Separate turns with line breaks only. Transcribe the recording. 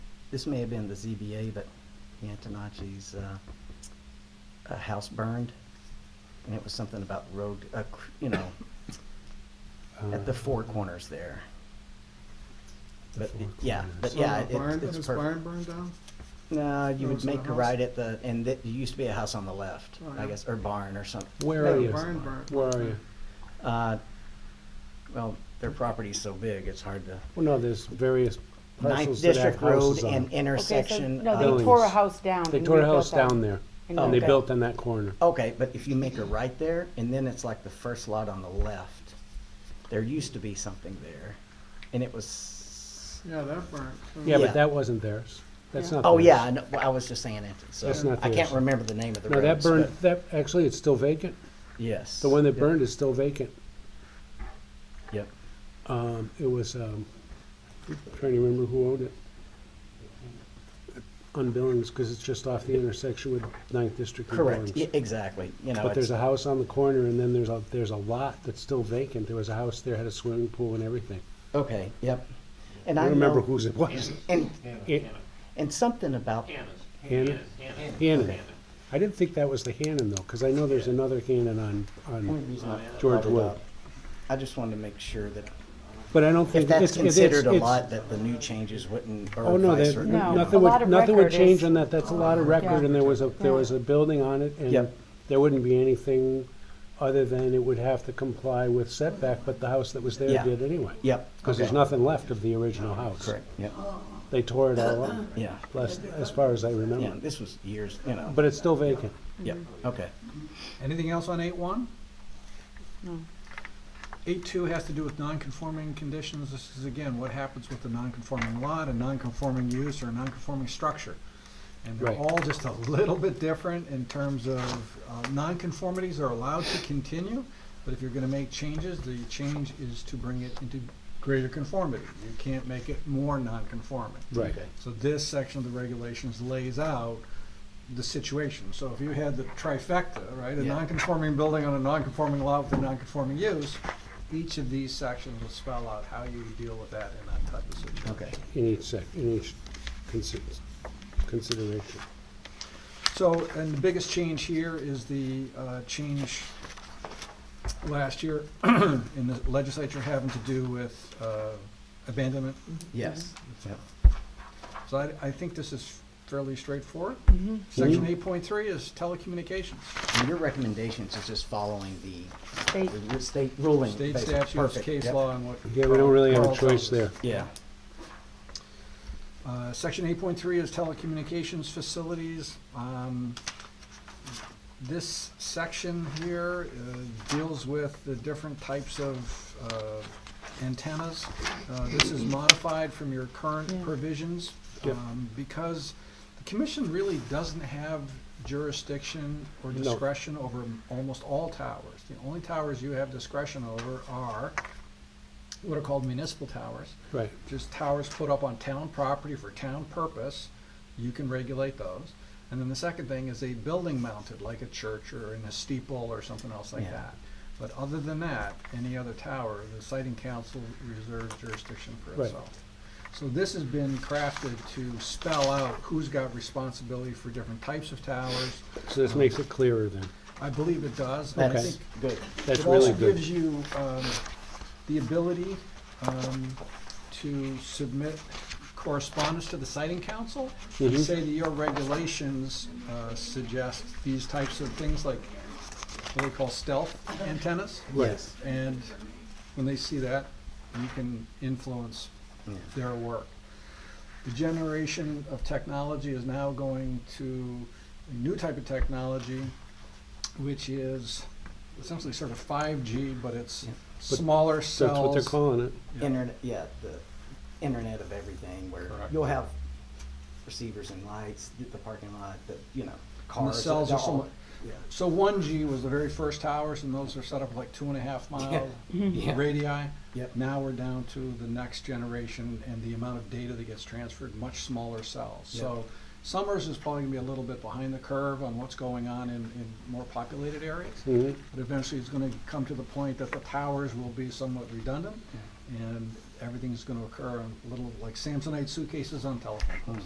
this may have been the ZBA, but the Antonacci's, uh, uh, house burned. And it was something about road, uh, cr- you know,
Uh,
at the four corners there. But,
four
yeah,
corners.
but
So
yeah,
the
it-
barn-
it's
Is
perfect.
barn burned down?
No, you
No,
would
it's not
make
a
a
house.
right at the, and it used to be a house on the left,
Oh,
I
yeah.
guess, or barn or something.
Where
No,
are
the
you?
barn burnt.
Where are you?
Uh, Well, their property's so big, it's hard to.
Well, no, there's various
Ninth
parcels that have
District Road
houses on.
and
Okay, so-
intersection.
No,
of-
they
Buildings.
tore a house down.
They
and
tore a
rebuilt
house
that.
down there,
Oh.
and they
Okay.
built on that corner.
Okay, but if you make a right there, and then it's like the first lot on the left, there used to be something there, and it was,
Yeah, that burnt.
Yeah,
Yeah.
but that wasn't theirs. That's
Yeah.
not theirs.
oh, yeah, I know- well, I was just saying it, so,
That's not
I can't
theirs.
remember the name of the
No, that
roads,
burned,
but,
that, actually, it's still vacant.
yes.
The one that
Yep,
burned is still vacant.
Yep,
Um, it was, um, trying to remember who owned it. On Billings, because it's just off the intersection with Ninth District and
correct, y-
Billings.
exactly, you know,
But there's
it's,
a house on the corner, and then there's a, there's a lot that's still vacant. There was a house there, had a swimming pool and everything.
okay, yep. And
I
I
don't remember
know,
whose it was.
and,
It-
and something about,
Hannah's.
Hannah?
Hannah.
Hannon. I didn't think that was the Hannon though, because I know there's another Hannon on,
only
on,
reason I
George
brought it
Wood.
up, I just wanted to make sure that,
but I don't think.
if that's
it's- it's- it's-
considered a
it's-
lot, that the new changes wouldn't,
Oh,
or
no,
vice
that,
versa.
No,
nothing
a lot
would,
of
nothing would
record
change
is-
on that. That's a lot of record
Yeah.
and there was a, there
Yeah.
was a building on it and
Yep.
there wouldn't be anything other than it would have to comply with setback, but the house that was there
Yeah.
did anyway.
Yep.
Because there's
okay,
nothing left of the original house.
Correct, yep,
They tore it all up,
yeah,
last, as far as I
yeah,
remember.
this was years, you know,
But it's still vacant.
yep, okay.
Anything else on eight one?
No.
Eight two has to do with non-conforming conditions. This is again, what happens with the non-conforming lot, a non-conforming use, or a non-conforming structure. And they're
Right.
all just a little bit different in terms of, uh, non-conformities are allowed to continue, but if you're gonna make changes, the change is to bring it into greater conformity. You can't make it more non-conforming.
Right.
So this section of the regulations lays out the situation. So if you had the trifecta, right, a
Yeah.
non-conforming building on a non-conforming lot with a non-conforming use, each of these sections will spell out how you deal with that in that type of situation.
Okay.
In each sec, in each consi- consideration.
So, and the biggest change here is the uh, change last year in the legislature having to do with uh, abandonment.
Yes.
So I, I think this is fairly straightforward.
Mhm.
Section eight point three is telecommunications.
And your recommendations is just following the
They-
the state ruling.
State
basically.
statutes,
Perfect.
case
Yep.
law, and what.
Yeah, we don't really have a
Carl tells
choice
us.
there.
Yeah,
Uh, Section eight point three is telecommunications facilities. Um, This section here uh, deals with the different types of uh, antennas. Uh, This is modified from your current
Yeah.
provisions
Yep.
um, because the commission really doesn't have jurisdiction or
No.
discretion over m- almost all towers. The only towers you have discretion over are what are called municipal towers
Right.
just towers put up on town property for town purpose, you can regulate those. And then the second thing is a building mounted, like a church or in a steeple or something else like
Yeah.
that. But other than that, any other tower, the siting council reserves jurisdiction for
Right.
itself. So this has been crafted to spell out who's got responsibility for different types of towers.
So this makes it clearer then.
I believe it does. I
that's
think
good.
That's really
it also gives
good.
you um, the ability um, to submit correspondence to the siting council. You
Mhm.
say that your regulations uh, suggest these types of things like what we call stealth antennas.
Yes.
And when they see that, you can influence
Yeah.
their work. The generation of technology is now going to a new type of technology, which is essentially sort of 5G, but it's
Yeah.
But
smaller
So That's what they're
cells.
calling it.
Yeah.
Internet, yeah, the internet of everything where
Correct.
you'll have receivers and lights, the- the parking lot, the, you know,
And the
cars.
cells
they're
are so
all-
mu- So 1G was the very first towers, and those are set up like two and a half mile
Yeah.
radii.
Yep.
Now we're down to the next generation and the amount of data that gets transferred, much smaller cells.
Yeah.
So Summers is probably gonna be a little bit behind the curve on what's going on in, in more populated areas.
Mhm.
But eventually, it's gonna come to the point that the towers will be somewhat redundant, and everything's gonna occur on little, like Samsonite suitcases on telephones.